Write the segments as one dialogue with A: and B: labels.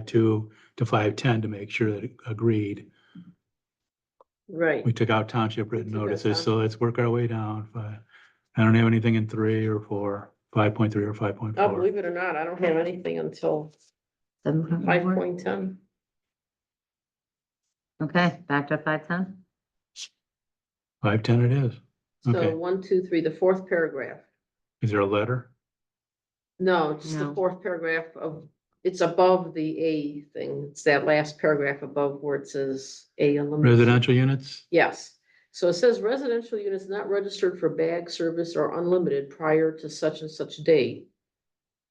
A: five-two to five-ten to make sure that it agreed.
B: Right.
A: We took out township written
B: We took out
A: notices, so let's work our way down. Fi- I don't have anything in three or four, five-point-three or
B: Oh,
A: five-point-four.
B: believe it or not, I don't have anything until
C: Seven point
B: five
C: four.
B: point ten.
C: Okay, back to five ten.
A: Five-ten it is. Okay.
B: So one, two, three, the fourth paragraph.
A: Is there a letter?
B: No, just the
C: No.
B: fourth paragraph of, it's above the A thing. It's that last paragraph above where it says A. eliminates.
A: Residential units?
B: Yes, so it says residential units not registered for bag service are unlimited prior to such and such date.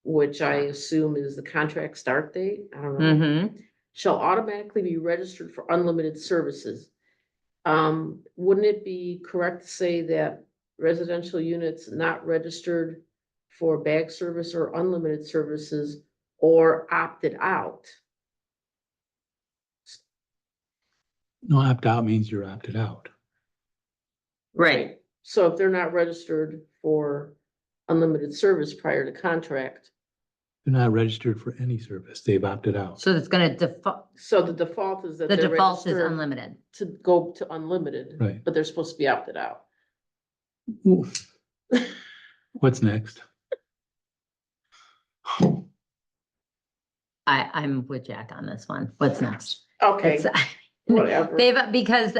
B: Which I assume is the contract start date, I don't know,
C: Mm-hmm.
B: shall automatically be registered for unlimited services. Um, wouldn't it be correct to say that residential units not registered for bag service or unlimited services or opted out?
A: No, opt-out means you're opted out.
C: Right,
B: So if they're not registered for unlimited service prior to contract,
A: They're not registered for any service. They've opted out.
C: so it's gonna default,
B: so the default is that
C: the
B: they're
C: default is
B: registered
C: unlimited.
B: to go to unlimited,
A: Right.
B: but they're supposed to be opted out.
A: Oof. What's next?
C: I, I'm with Jack on this one. What's next?
B: Okay,
C: It's-
B: whatever.
C: They've, because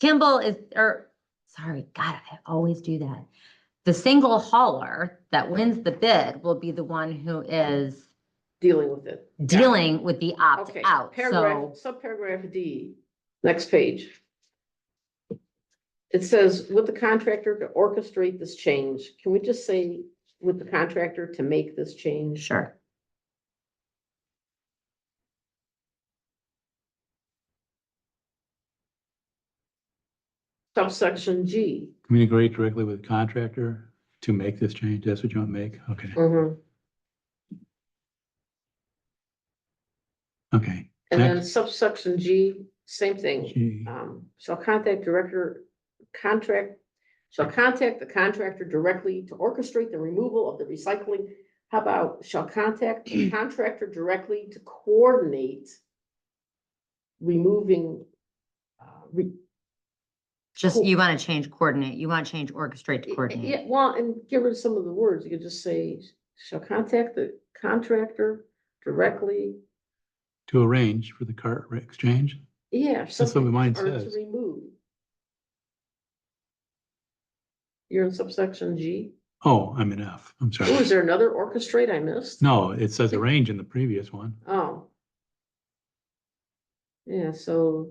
C: Kimball is, or, sorry, God, I always do that. The single hauler that wins the bid will be the one who is
B: dealing with it. Got it.
C: dealing with the
B: Okay,
C: opt-out,
B: paragraph,
C: so.
B: subparagraph D, next page. It says with the contractor to orchestrate this change. Can we just say with the contractor to make this change?
C: Sure.
B: Subsection G.
A: Communicate directly with the contractor to make this change. That's what you want to make? Okay,
B: Mhm.
A: okay.
B: And then subsection G, same thing,
A: Gee.
B: um, shall contact director, contract, shall contact the contractor directly to orchestrate the removal of the recycling. How about shall contact the contractor directly to coordinate removing, uh, re-
C: Just,
B: Cool.
C: you want to change coordinate, you want to change orchestrate to coordinate.
B: Yeah, well, and get rid of some of the words, you could just say, shall contact the contractor directly,
A: To arrange for the cart re- exchange?
B: yeah.
A: That's what
B: something.
A: mine
B: or to
A: says.
B: remove. You're in subsection G.
A: Oh, I'm in F. I'm
B: Oh, is
A: sorry.
B: there another orchestrate I missed?
A: No, it says arrange in the previous one.
B: Oh. Yeah, so.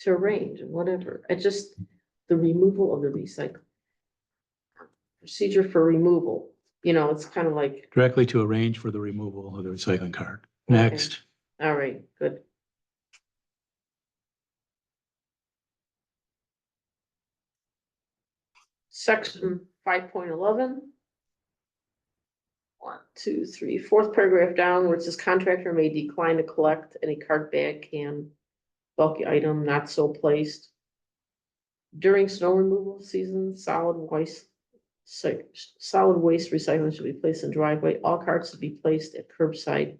B: To arrange, and whatever, I just, the removal of the recycle. Procedure for removal, you know, it's kind of like,
A: Directly to arrange for the removal of the recycling cart. Next.
B: all right, good. Section five point eleven. One, two, three, fourth paragraph down where it says contractor may decline to collect any cart bag can bulky item not so placed. During snow removal season, solid waste, so, solid waste recycling should be placed in driveway. All carts should be placed at curbside.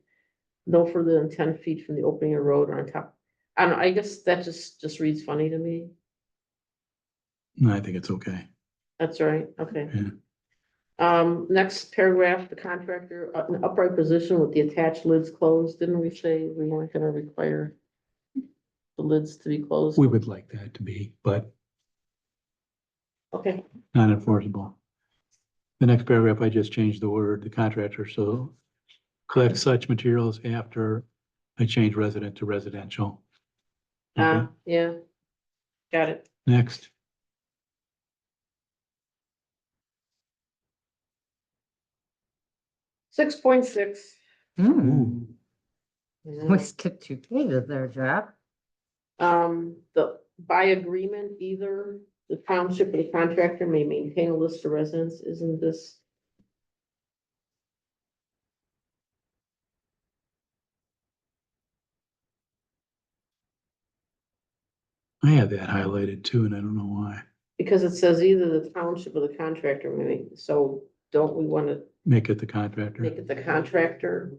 B: No further than ten feet from the opening of road or on top. I don't, know, I guess that just, just reads funny to me.
A: No, I think it's okay.
B: That's right, okay.
A: Yeah.
B: Um, next paragraph, the contractor, uh, an upright position with the attached lids closed, didn't we say we weren't gonna require the lids to be closed?
A: We would like that to be, but
B: Okay,
A: not enforceable. The next paragraph, I just changed the word, the contractor, so collect such materials after I change resident to residential.
B: uh,
A: Okay,
B: yeah, got it.
A: next,
B: Six point six. Mm.
C: Hmm, We skipped two pages there, Jeff.
B: Um, the, by agreement, either the township or the contractor may maintain a list of residents, isn't this?
A: I had that highlighted too, and I don't know why.
B: Because it says either the township or the contractor may, so don't we wanna
A: Make it the contractor.
B: make it the contractor?